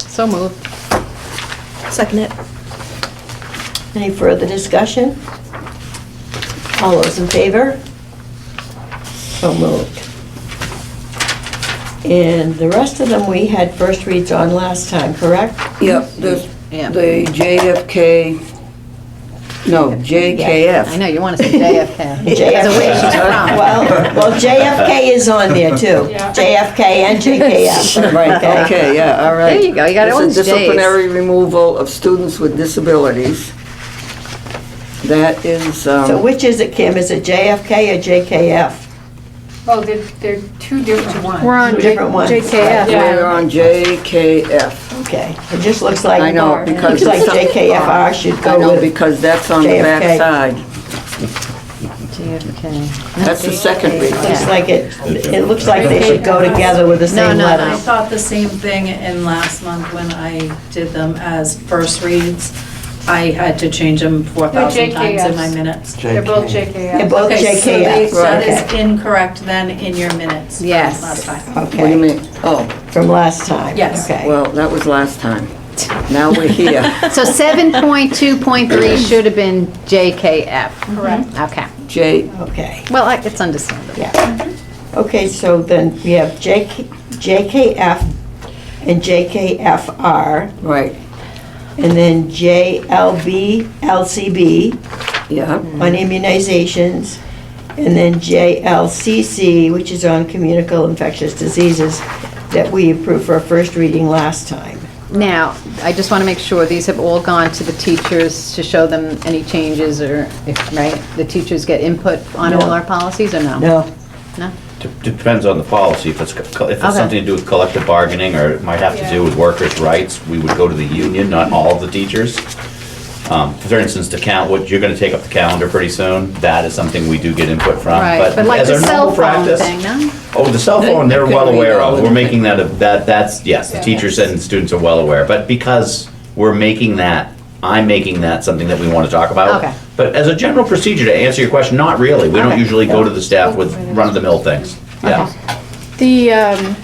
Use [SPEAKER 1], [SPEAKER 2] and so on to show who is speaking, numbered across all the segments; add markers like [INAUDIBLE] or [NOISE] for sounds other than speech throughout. [SPEAKER 1] So moved.
[SPEAKER 2] Second it. Any further discussion? All those in favor? So moved. And the rest of them, we had first reads on last time,
[SPEAKER 3] [LAUGHS]
[SPEAKER 2] correct?
[SPEAKER 3] Yep, the,
[SPEAKER 1] Yeah.
[SPEAKER 3] the JFK, no,
[SPEAKER 1] I
[SPEAKER 3] JKF.
[SPEAKER 1] know, you want to say JFK.
[SPEAKER 2] [LAUGHS]
[SPEAKER 1] Because of where she's from.
[SPEAKER 2] Well, well, JFK is on there too. JFK and JKF.
[SPEAKER 3] [LAUGHS] Right, okay, yeah, all right.
[SPEAKER 1] There you go, you got
[SPEAKER 3] This
[SPEAKER 1] all
[SPEAKER 3] is
[SPEAKER 1] these Js.
[SPEAKER 3] Disciplinary removal of students with disabilities. That is,
[SPEAKER 2] So
[SPEAKER 3] um,
[SPEAKER 2] which is it, Kim? Is it JFK or JKF?
[SPEAKER 4] Oh, they're, they're two different ones.
[SPEAKER 1] We're on J-
[SPEAKER 2] Different ones.
[SPEAKER 1] JKF.
[SPEAKER 4] Yeah.
[SPEAKER 3] we're on JKF.
[SPEAKER 2] Okay, it just looks like.
[SPEAKER 3] I know, because
[SPEAKER 2] Looks like
[SPEAKER 3] it's-
[SPEAKER 2] JKFR should
[SPEAKER 3] I
[SPEAKER 2] go
[SPEAKER 3] know,
[SPEAKER 2] with.
[SPEAKER 3] Oh, because that's on the
[SPEAKER 2] JFK.
[SPEAKER 3] backside.
[SPEAKER 1] JFK.
[SPEAKER 3] That's the second reason.
[SPEAKER 2] Looks like it, it looks like they should go together with the
[SPEAKER 1] No,
[SPEAKER 2] same
[SPEAKER 1] no,
[SPEAKER 5] I
[SPEAKER 2] letters.
[SPEAKER 5] thought the same thing in last month when I did them as first reads. I had to change them 4,000 times in my
[SPEAKER 4] JKS.
[SPEAKER 5] minutes.
[SPEAKER 4] They're both
[SPEAKER 2] They're
[SPEAKER 4] JKF.
[SPEAKER 2] both
[SPEAKER 5] Okay, so they-
[SPEAKER 2] JKF
[SPEAKER 5] so That is
[SPEAKER 2] Okay.
[SPEAKER 5] incorrect then in your minutes. from
[SPEAKER 1] Yes.
[SPEAKER 5] Last time.
[SPEAKER 3] What do you
[SPEAKER 2] Okay,
[SPEAKER 3] mean? Oh,
[SPEAKER 2] from last time.
[SPEAKER 5] Yes.
[SPEAKER 2] Okay.
[SPEAKER 3] well, that was last time. Now
[SPEAKER 1] [LAUGHS]
[SPEAKER 3] we're here.
[SPEAKER 1] So 7.2.3 should have been JKF.
[SPEAKER 4] Correct.
[SPEAKER 1] Mm-hmm. Okay.
[SPEAKER 3] J,
[SPEAKER 2] Okay,
[SPEAKER 1] Well, I- it's understandable.
[SPEAKER 2] yeah. Okay, so then we have JK JKF and JKFR,
[SPEAKER 3] right,
[SPEAKER 2] and then JLB, LCB.
[SPEAKER 3] yeah.
[SPEAKER 2] on immunizations, and then JLCC, which is on communicable infectious diseases, that we approved for our first reading last time.
[SPEAKER 1] Now, I just want to make sure, these have all gone to the teachers to show them any changes or, if- right? The teachers get input on all our policies or no?
[SPEAKER 2] No?
[SPEAKER 1] No?
[SPEAKER 6] De- Depends on the policy, if it's, co- if
[SPEAKER 1] Okay.
[SPEAKER 6] it's something to do with collective bargaining, or it might have to do with workers' rights, we would go to the union, not all of the teachers. Um, For instance, to count, what, you're gonna take up the calendar pretty soon, that is something we do get input from,
[SPEAKER 1] Right,
[SPEAKER 6] but
[SPEAKER 1] but like
[SPEAKER 6] as
[SPEAKER 1] the
[SPEAKER 6] a
[SPEAKER 1] cell
[SPEAKER 6] normal
[SPEAKER 1] phone
[SPEAKER 6] practice.
[SPEAKER 1] thing, no?
[SPEAKER 6] Oh, the cell phone, they're
[SPEAKER 3] Okay,
[SPEAKER 6] well
[SPEAKER 3] we
[SPEAKER 6] aware
[SPEAKER 3] know.
[SPEAKER 6] of, we're making that, a- that, that's, yes, the teachers and students are well aware, but because we're making that, I'm making that something that we wanna talk about.
[SPEAKER 1] Okay.
[SPEAKER 6] But as a general procedure, to answer your question, not really, we don't
[SPEAKER 1] Okay.
[SPEAKER 6] usually go to the staff with run-of-the-mill things, yeah.
[SPEAKER 7] The um,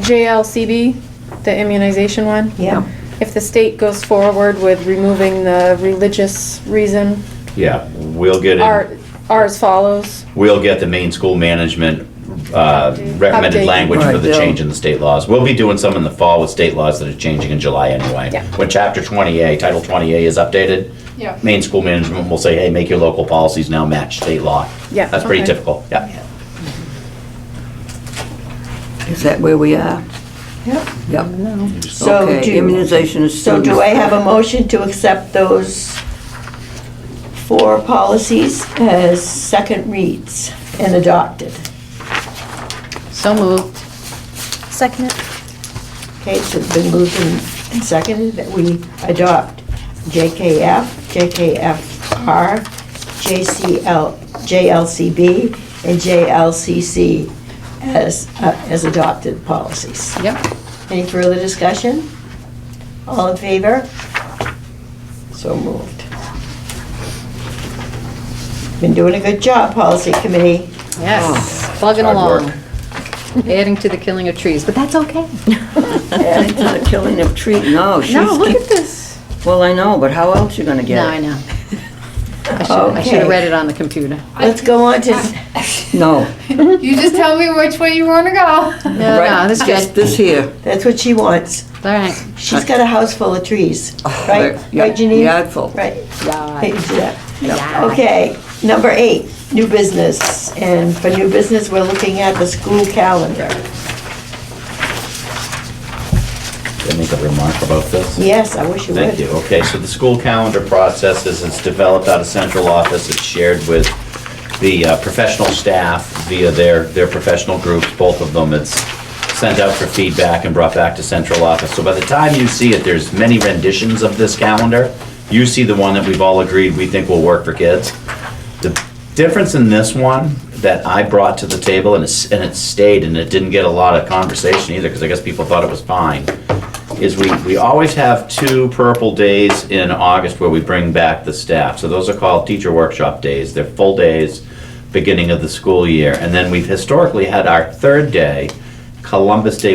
[SPEAKER 7] JLCB, the immunization one,
[SPEAKER 2] Yeah.
[SPEAKER 7] if the state goes forward with removing the religious reason,
[SPEAKER 6] Yeah, we'll get,
[SPEAKER 7] are,
[SPEAKER 6] in-
[SPEAKER 7] are as follows.
[SPEAKER 6] we'll get the main school management uh, recommended
[SPEAKER 7] Update.
[SPEAKER 6] language for the
[SPEAKER 3] Right,
[SPEAKER 6] change
[SPEAKER 3] yeah.
[SPEAKER 6] in the state laws. We'll be doing some in the fall with state laws that are changing in July anyway.
[SPEAKER 7] Yeah.
[SPEAKER 6] When chapter 20A, title 20A is updated,
[SPEAKER 4] Yeah.
[SPEAKER 6] main school management will say, hey, make your local policies now match state law.
[SPEAKER 7] Yeah,
[SPEAKER 6] That's pretty
[SPEAKER 7] okay.
[SPEAKER 6] typical, yeah.
[SPEAKER 3] Is that where we are?
[SPEAKER 2] Yep.
[SPEAKER 3] Yep.
[SPEAKER 2] So
[SPEAKER 3] Okay,
[SPEAKER 2] do,
[SPEAKER 3] Immunization of
[SPEAKER 2] so
[SPEAKER 3] students.
[SPEAKER 2] do I have a motion to accept those four policies as second reads and adopted?
[SPEAKER 1] So moved.
[SPEAKER 5] Second.
[SPEAKER 2] Okay, so it's been moved and and seconded that we adopt JKF, JKFR, JCL, JLCB, and JLCC as, uh, as adopted policies.
[SPEAKER 1] Yep.
[SPEAKER 2] Any further discussion? All in favor? So moved. Been doing a good job, Policy Committee.
[SPEAKER 1] Yes, plugging
[SPEAKER 6] Oh, hard
[SPEAKER 1] along.
[SPEAKER 6] work.
[SPEAKER 1] Adding to the killing of trees, but that's okay.
[SPEAKER 3] Adding to the killing of trees, no,
[SPEAKER 1] No, look
[SPEAKER 3] she's,
[SPEAKER 1] at this.
[SPEAKER 3] well, I know, but how else you gonna
[SPEAKER 1] No,
[SPEAKER 3] get
[SPEAKER 1] I
[SPEAKER 3] it?
[SPEAKER 1] know. I should, I should
[SPEAKER 2] Okay.
[SPEAKER 1] have read it on the computer.
[SPEAKER 2] Let's go on to,
[SPEAKER 3] No,
[SPEAKER 4] You just tell me which way you want to go.
[SPEAKER 1] No, no,
[SPEAKER 3] right,
[SPEAKER 1] this is good.
[SPEAKER 3] just this here.
[SPEAKER 2] that's what she wants.
[SPEAKER 1] All right.
[SPEAKER 2] She's got a house full of
[SPEAKER 3] [LAUGHS]
[SPEAKER 2] trees, right?
[SPEAKER 3] Oh, There, yeah,
[SPEAKER 2] Right, Janine?
[SPEAKER 3] Yardful.
[SPEAKER 2] Right.
[SPEAKER 1] Yeah.
[SPEAKER 2] Hey, you do that. Okay, number eight, new business. And for new business, we're looking at the school calendar.
[SPEAKER 6] Can I make a remark about this?
[SPEAKER 2] Yes, I wish you would.
[SPEAKER 6] Thank you. Okay, so the school calendar process is, it's developed out of central office, it's shared with the uh, professional staff via their, their professional groups, both of them. It's sent out for feedback and brought back to central office. So by the time you see it, there's many renditions of this calendar. You see the one that we've all agreed we think will work for kids. The difference in this one that I brought to the table, and it's, and it stayed, and it didn't get a lot of conversation either, because I guess people thought it was fine, is we, we always have two purple days in August where we bring back the staff. So those are called teacher workshop days. They're full days, beginning of the school year. And then we've historically had our third day, Columbus Day